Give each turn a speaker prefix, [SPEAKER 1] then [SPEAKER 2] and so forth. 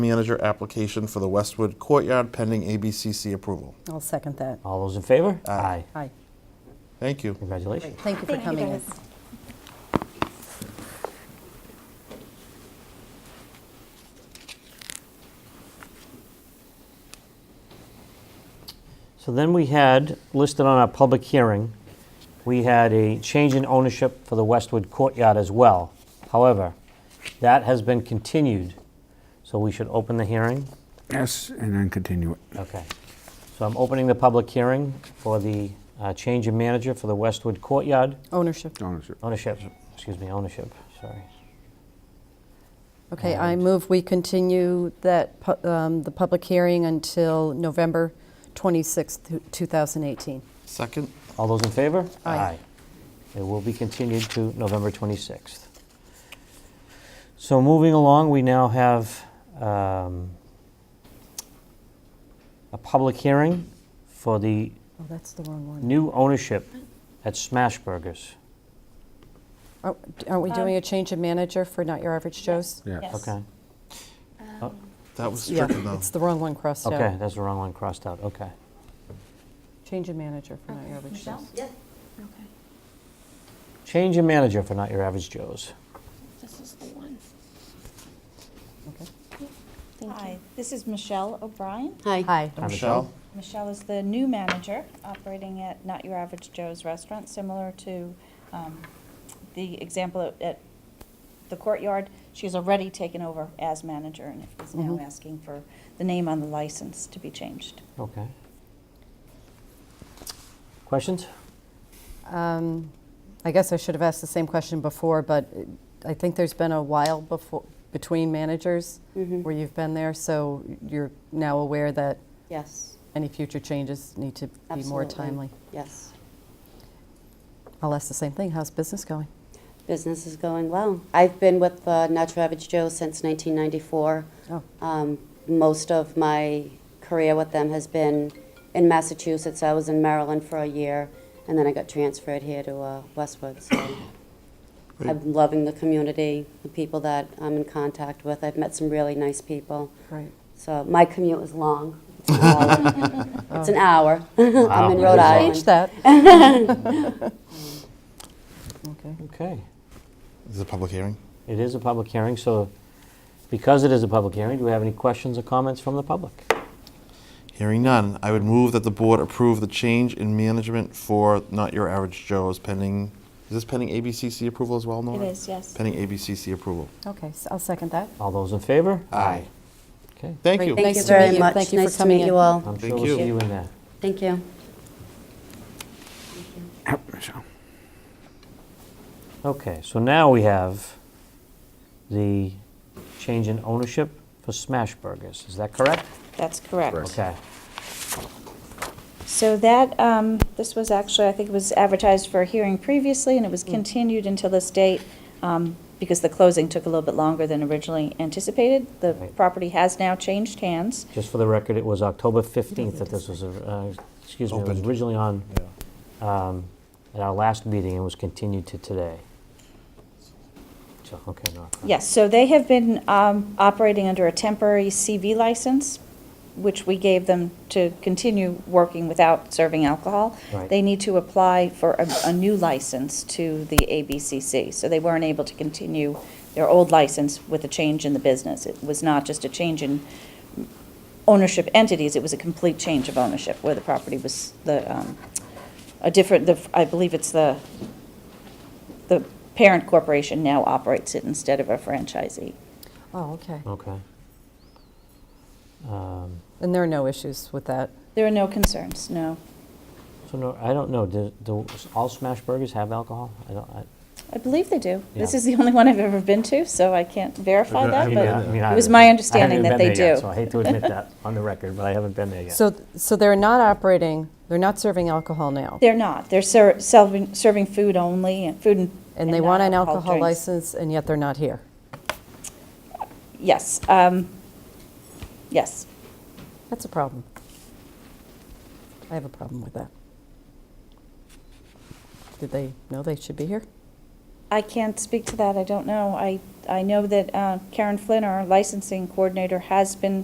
[SPEAKER 1] manager application for the Westwood Courtyard pending ABCC approval.
[SPEAKER 2] I'll second that.
[SPEAKER 3] All those in favor? Aye.
[SPEAKER 2] Hi.
[SPEAKER 1] Thank you.
[SPEAKER 3] Congratulations.
[SPEAKER 2] Thank you for
[SPEAKER 4] Thank you,
[SPEAKER 2] coming in.
[SPEAKER 4] guys.
[SPEAKER 3] So then we had, listed on our public hearing, we had a change in ownership for the Westwood Courtyard as well. However, that has been continued, so we should open the hearing.
[SPEAKER 5] Yes, and then continue it.
[SPEAKER 3] Okay. So I'm opening the public hearing for the uh, change in manager for the Westwood Courtyard
[SPEAKER 2] Ownership.
[SPEAKER 5] Ownership.
[SPEAKER 3] ownership, excuse me, ownership, sorry.
[SPEAKER 2] Okay, I move we continue that, pu- um, the public hearing until November 26th, 2018.
[SPEAKER 1] Second?
[SPEAKER 3] All those in favor?
[SPEAKER 2] Aye.
[SPEAKER 3] It will be continued to November 26th. So moving along, we now have um, a public hearing for the
[SPEAKER 2] Oh, that's the wrong one.
[SPEAKER 3] new ownership at Smash Burgers.
[SPEAKER 2] Are- Aren't we doing a change of manager for Not Your Average Joe's?
[SPEAKER 5] Yeah.
[SPEAKER 3] Okay,
[SPEAKER 6] Um,
[SPEAKER 1] That was
[SPEAKER 2] Yeah,
[SPEAKER 1] stricken though.
[SPEAKER 2] it's the wrong one crossed out.
[SPEAKER 3] okay, that's the wrong one crossed out, okay.
[SPEAKER 2] Change of manager for Not Your Average Joe's.
[SPEAKER 4] Yeah. Okay,
[SPEAKER 3] Change in manager for Not Your Average Joe's.
[SPEAKER 4] this is the one.
[SPEAKER 2] Okay.
[SPEAKER 4] Thank
[SPEAKER 6] Hi,
[SPEAKER 4] you.
[SPEAKER 6] this is Michelle O'Brien.
[SPEAKER 2] Hi.
[SPEAKER 3] Hi,
[SPEAKER 1] Michelle?
[SPEAKER 6] Michelle is the new manager operating at Not Your Average Joe's Restaurant, similar to um, the example at- at the courtyard. She's already taken over as manager and is now
[SPEAKER 2] Mhm.
[SPEAKER 6] asking for the name on the license to be changed.
[SPEAKER 3] Okay. Questions?
[SPEAKER 2] Um, I guess I should have asked the same question before, but it- I think there's been a while before, between managers where you've been there, so you're now aware that
[SPEAKER 7] Yes,
[SPEAKER 2] any future changes need to be more
[SPEAKER 7] absolutely.
[SPEAKER 2] timely.
[SPEAKER 7] Yes.
[SPEAKER 2] I'll ask the same thing, how's business going?
[SPEAKER 7] Business is going well. I've been with uh, Natural Average Joe since 1994.
[SPEAKER 2] Oh,
[SPEAKER 7] Um, Most of my career with them has been in Massachusetts. I was in Maryland for a year, and then I got transferred here to uh, Westwood. So I'm loving the community, the people that I'm in contact with. I've met some really nice people.
[SPEAKER 2] great.
[SPEAKER 7] So my commute is long. It's an hour. It's an hour. I'm in
[SPEAKER 3] Oh. Wow.
[SPEAKER 7] Rhode
[SPEAKER 2] Change
[SPEAKER 7] Island.
[SPEAKER 2] that. Okay,
[SPEAKER 3] Okay.
[SPEAKER 1] This is a public hearing.
[SPEAKER 3] It is a public hearing, so because it is a public hearing, do we have any questions or comments from the public?
[SPEAKER 1] Hearing none, I would move that the board approve the change in management for Not Your Average Joe's pending, is this pending ABCC approval as well,
[SPEAKER 6] It
[SPEAKER 1] Nora?
[SPEAKER 6] is, yes.
[SPEAKER 1] Pending ABCC approval.
[SPEAKER 2] okay, s- I'll second that.
[SPEAKER 3] All those in favor?
[SPEAKER 1] Aye.
[SPEAKER 3] Okay.
[SPEAKER 1] Thank
[SPEAKER 2] Great,
[SPEAKER 1] you.
[SPEAKER 2] thank
[SPEAKER 7] Thank
[SPEAKER 2] Nice
[SPEAKER 7] you
[SPEAKER 2] to
[SPEAKER 7] very
[SPEAKER 2] meet you.
[SPEAKER 7] much.
[SPEAKER 2] Thank you for
[SPEAKER 7] Nice to
[SPEAKER 2] coming
[SPEAKER 7] meet
[SPEAKER 2] in.
[SPEAKER 7] you all.
[SPEAKER 3] I'm sure
[SPEAKER 1] Thank
[SPEAKER 3] we'll see
[SPEAKER 1] you.
[SPEAKER 3] you in there.
[SPEAKER 7] Thank you.
[SPEAKER 5] Yep, Michelle.
[SPEAKER 3] Okay, so now we have the change in ownership for Smash Burgers. Is that correct?
[SPEAKER 6] That's correct.
[SPEAKER 3] Okay.
[SPEAKER 6] So that, um, this was actually, I think it was advertised for a hearing previously, and it was continued until this date, um, because the closing took a little bit longer than originally anticipated. The
[SPEAKER 3] Right.
[SPEAKER 6] property has now changed hands.
[SPEAKER 3] Just for the record, it was October 15th that this was, uh, excuse me, it was
[SPEAKER 1] Opened.
[SPEAKER 3] originally on
[SPEAKER 1] Yeah.
[SPEAKER 3] um, at our last meeting and was continued to today. So, okay, no.
[SPEAKER 6] Yes, so they have been um, operating under a temporary CV license, which we gave them to continue working without serving alcohol.
[SPEAKER 3] Right.
[SPEAKER 6] They need to apply for a, a new license to the ABCC, so they weren't able to continue their old license with a change in the business. It was not just a change in ownership entities, it was a complete change of ownership, where the property was, the, um, a different, the I believe it's the, the parent corporation now operates it instead of a franchisee.
[SPEAKER 2] Oh, okay.
[SPEAKER 3] Okay. Um,
[SPEAKER 2] And there are no issues with that.
[SPEAKER 6] There are no concerns, no.
[SPEAKER 3] So no, I don't know, do, do all smash burgers have alcohol? I don't, I.
[SPEAKER 6] I believe they do. This
[SPEAKER 3] Yeah.
[SPEAKER 6] is the only one I've ever been to, so I can't verify
[SPEAKER 1] I
[SPEAKER 6] that,
[SPEAKER 1] haven't
[SPEAKER 6] but
[SPEAKER 1] been
[SPEAKER 6] it was my understanding that they do.
[SPEAKER 3] So I hate to admit that on the record, but I haven't been there yet.
[SPEAKER 2] So, so they're not operating, they're not serving alcohol now?
[SPEAKER 6] They're not. They're ser- serving, serving food only, and food and.
[SPEAKER 2] And they want an
[SPEAKER 6] non-alcoholic
[SPEAKER 2] alcohol
[SPEAKER 6] drinks.
[SPEAKER 2] license, and yet they're not here?
[SPEAKER 6] Yes, um, yes.
[SPEAKER 2] That's a problem. I have a problem with that. Did they know they should be here?
[SPEAKER 6] I can't speak to that, I don't know. I, I know that uh, Karen Flynn, our licensing coordinator, has been